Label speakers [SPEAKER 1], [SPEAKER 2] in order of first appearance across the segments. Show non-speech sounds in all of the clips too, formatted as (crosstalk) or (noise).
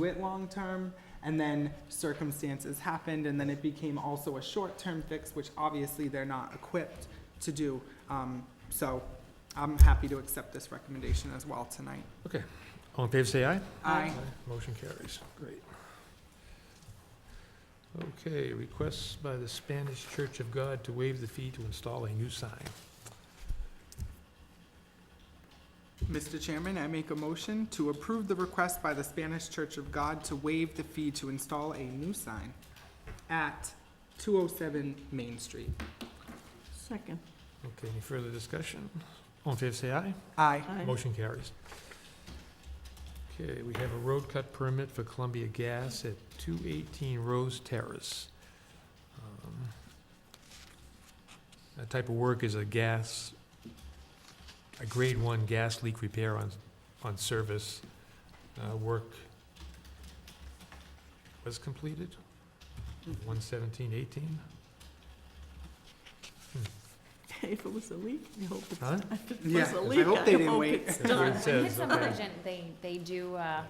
[SPEAKER 1] do it long-term, and then circumstances happened, and then it became also a short-term fix, which obviously they're not equipped to do. Um, So I'm happy to accept this recommendation as well tonight.
[SPEAKER 2] Okay, all in favor, say aye.
[SPEAKER 1] Aye.
[SPEAKER 2] Motion carries, great. Okay, requests by the Spanish Church of God to waive the fee to install a new sign.
[SPEAKER 1] Mr. Chairman, I make a motion to approve the request by the Spanish Church of God to waive the fee to install a new sign at 207 Main Street.
[SPEAKER 3] Second.
[SPEAKER 2] Okay, any further discussion? All in favor, say aye.
[SPEAKER 1] Aye.
[SPEAKER 3] Aye.
[SPEAKER 2] Motion carries. Okay, we have a road cut permit for Columbia Gas at 218 Rose Terrace. Um, That type of work is a gas, a grade one gas leak repair on, on service. Uh, Work was completed, 11718.
[SPEAKER 3] (laughs) If it was a leak, I hope it's,
[SPEAKER 2] Huh?
[SPEAKER 3] if it
[SPEAKER 1] Yeah,
[SPEAKER 3] was a
[SPEAKER 1] I
[SPEAKER 3] leak,
[SPEAKER 1] hope they
[SPEAKER 3] I
[SPEAKER 1] didn't
[SPEAKER 3] hope
[SPEAKER 1] wait.
[SPEAKER 3] it's
[SPEAKER 2] That's
[SPEAKER 1] (laughs)
[SPEAKER 2] what it
[SPEAKER 3] done.
[SPEAKER 4] In
[SPEAKER 2] says,
[SPEAKER 4] his
[SPEAKER 2] okay.
[SPEAKER 4] subdivision, they, they do uh,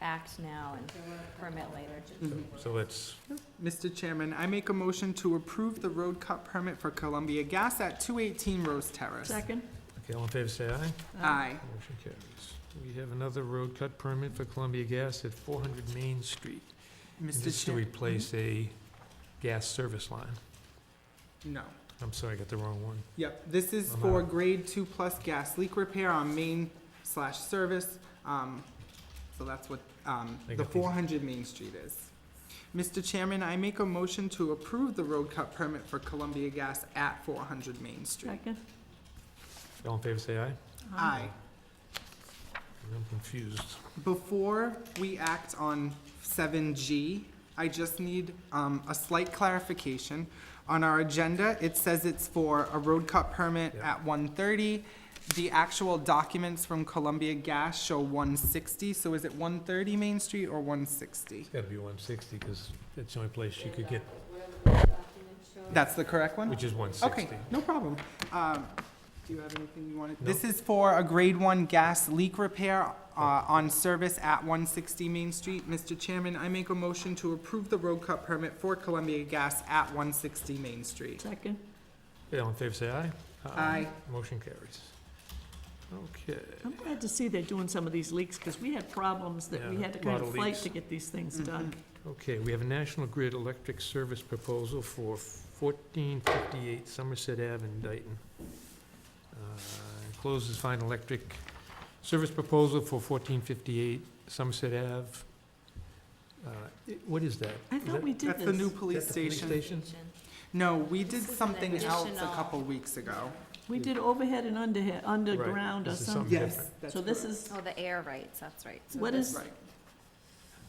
[SPEAKER 4] act now and permit later.
[SPEAKER 1] Mhm.
[SPEAKER 2] So that's
[SPEAKER 1] Mr. Chairman, I make a motion to approve the road cut permit for Columbia Gas at 218 Rose Terrace.
[SPEAKER 3] Second. Uh,
[SPEAKER 2] okay, all in favor, say aye.
[SPEAKER 1] Aye.
[SPEAKER 2] Motion carries. We have another road cut permit for Columbia Gas at 400 Main Street. This
[SPEAKER 1] Mr.
[SPEAKER 2] is to
[SPEAKER 1] Chair,
[SPEAKER 2] replace a gas service line.
[SPEAKER 1] no.
[SPEAKER 2] I'm sorry, I got the wrong one.
[SPEAKER 1] Yep, this is
[SPEAKER 2] I'm
[SPEAKER 1] for
[SPEAKER 2] out.
[SPEAKER 1] grade two plus gas leak repair on main slash service. Um, so that's what, um,
[SPEAKER 2] I
[SPEAKER 1] the
[SPEAKER 2] got these.
[SPEAKER 1] four hundred Main Street is. Mr. Chairman, I make a motion to approve the road cut permit for Columbia Gas at four hundred Main Street.
[SPEAKER 3] Second.
[SPEAKER 2] All in favor, say aye.
[SPEAKER 1] Aye.
[SPEAKER 2] I'm confused.
[SPEAKER 1] Before we act on seven G, I just need, um, a slight clarification. On our agenda, it says it's for a road cut permit
[SPEAKER 2] Yeah.
[SPEAKER 1] at one thirty. The actual documents from Columbia Gas show one sixty, so is it one thirty Main Street or one sixty?
[SPEAKER 2] It's got to be 160, because that's the only place you could get,
[SPEAKER 1] That's the correct one?
[SPEAKER 2] which is 160.
[SPEAKER 1] Okay, no problem. Um, do you have anything you wanted?
[SPEAKER 2] No.
[SPEAKER 1] This is for a grade one gas leak repair, uh, on service at one sixty Main Street. Mr. Chairman, I make a motion to approve the road cut permit for Columbia Gas at one sixty Main Street.
[SPEAKER 3] Second.
[SPEAKER 2] Okay, all in favor, say aye.
[SPEAKER 1] Aye.
[SPEAKER 2] Motion carries. Okay.
[SPEAKER 3] I'm glad to see they're doing some of these leaks, because we had problems that we
[SPEAKER 2] Yeah,
[SPEAKER 3] had to
[SPEAKER 2] lot
[SPEAKER 3] kind
[SPEAKER 2] of
[SPEAKER 3] of fight
[SPEAKER 2] leaks.
[SPEAKER 3] to get these things
[SPEAKER 1] Mm-hmm.
[SPEAKER 3] done.
[SPEAKER 2] Okay, we have a National Grid Electric Service proposal for 1458 Somerset Ave in Dayton. Uh, Encloses fine electric service proposal for 1458 Somerset Ave. Uh, it- What is that?
[SPEAKER 3] I
[SPEAKER 2] Is
[SPEAKER 3] thought
[SPEAKER 2] that-
[SPEAKER 3] we
[SPEAKER 2] is
[SPEAKER 3] did
[SPEAKER 1] That's the new
[SPEAKER 3] this.
[SPEAKER 2] that
[SPEAKER 1] police
[SPEAKER 2] the police
[SPEAKER 1] station.
[SPEAKER 2] stations?
[SPEAKER 1] No, we did
[SPEAKER 4] This is an
[SPEAKER 1] something else a
[SPEAKER 4] additional-
[SPEAKER 1] couple weeks ago.
[SPEAKER 3] We did overhead and underhead, underground or
[SPEAKER 2] this is
[SPEAKER 3] something.
[SPEAKER 2] something
[SPEAKER 1] Yes.
[SPEAKER 2] different.
[SPEAKER 1] that's
[SPEAKER 3] So this
[SPEAKER 1] correct.
[SPEAKER 3] is,
[SPEAKER 4] Oh, the air rights, that's right. So
[SPEAKER 3] What
[SPEAKER 4] this-
[SPEAKER 3] is-
[SPEAKER 1] Right,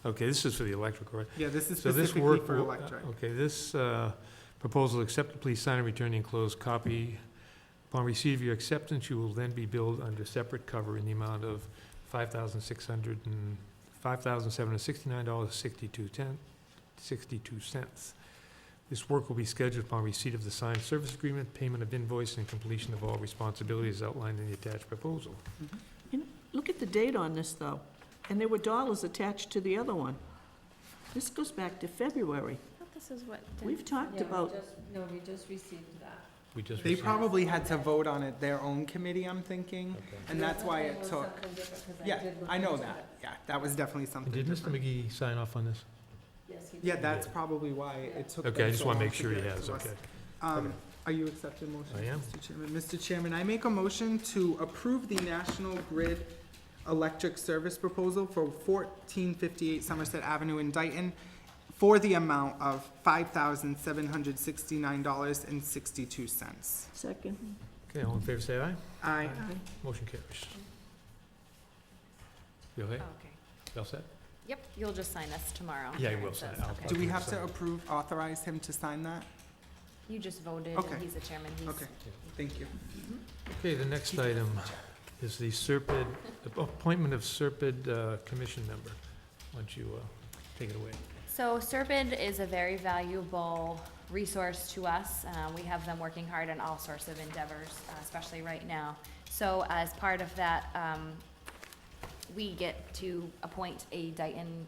[SPEAKER 2] Okay, this is for the electric, right?
[SPEAKER 1] yeah, this is
[SPEAKER 2] So this uh,
[SPEAKER 1] specifically
[SPEAKER 2] work,
[SPEAKER 1] for
[SPEAKER 2] will-
[SPEAKER 1] electric.
[SPEAKER 2] okay, this uh, proposal, accept, please sign and return the enclosed copy. Upon receipt of your acceptance, you will then be billed under separate cover in the amount of five thousand six hundred and, five thousand seven hundred sixty-nine dollars sixty-two ten, sixty-two cents. This work will be scheduled upon receipt of the signed service agreement, payment of invoice, and completion of all responsibilities outlined in the attached proposal.
[SPEAKER 3] look at the date on this, though, and there were dollars attached to the other one. This goes back to February.
[SPEAKER 4] I thought this is what. the-
[SPEAKER 3] We've talked about,
[SPEAKER 5] No, we just received that.
[SPEAKER 2] We just
[SPEAKER 1] They
[SPEAKER 2] received-
[SPEAKER 1] probably had to vote on it their own committee, I'm thinking,
[SPEAKER 2] Okay.
[SPEAKER 1] and that's why it took,
[SPEAKER 5] Something different, 'cause
[SPEAKER 1] yeah,
[SPEAKER 5] did look
[SPEAKER 1] I know
[SPEAKER 5] into
[SPEAKER 1] that, yeah, that was definitely something
[SPEAKER 2] And Did Mr.
[SPEAKER 1] different.
[SPEAKER 2] McGee sign off on this?
[SPEAKER 5] it. Yes, he did.
[SPEAKER 1] Yeah, that's probably why it took.
[SPEAKER 2] Okay,
[SPEAKER 1] them
[SPEAKER 2] I just
[SPEAKER 1] so
[SPEAKER 2] want to
[SPEAKER 1] long
[SPEAKER 2] make sure he
[SPEAKER 1] get it
[SPEAKER 2] has,
[SPEAKER 1] to us.
[SPEAKER 2] okay.
[SPEAKER 1] Um, are you accepting motion?
[SPEAKER 2] I am.
[SPEAKER 1] Mr. Chairman, Mr. Chairman, I make a motion to approve the National Grid Electric Service Proposal for fourteen fifty-eight Somerset Avenue in Dayton for the amount of five thousand seven hundred sixty-nine dollars and sixty-two cents.
[SPEAKER 3] second,
[SPEAKER 2] Okay, all in favor, say aye.
[SPEAKER 1] Aye.
[SPEAKER 3] Aye.
[SPEAKER 2] Motion carries. You okay?
[SPEAKER 4] Oh, Okay.
[SPEAKER 2] You all set?
[SPEAKER 4] Yep, you'll just sign this tomorrow.
[SPEAKER 2] Yeah, I
[SPEAKER 4] It
[SPEAKER 2] will
[SPEAKER 4] says,
[SPEAKER 2] sign. I'll-
[SPEAKER 4] okay.
[SPEAKER 1] Do we have to approve, authorize him to sign that?
[SPEAKER 4] You just voted,
[SPEAKER 1] Okay.
[SPEAKER 4] and he's the chairman, he's.
[SPEAKER 1] Okay, thank you.
[SPEAKER 2] Okay, the next item is the Serpide, the appointment of Serpide uh, Commission member. Why don't you uh, take it away?
[SPEAKER 4] So Serpid is a very valuable resource to us. Uh, we have them working hard on all sorts of endeavors, uh, especially right now. So as part of that, um, we get to appoint a Dayton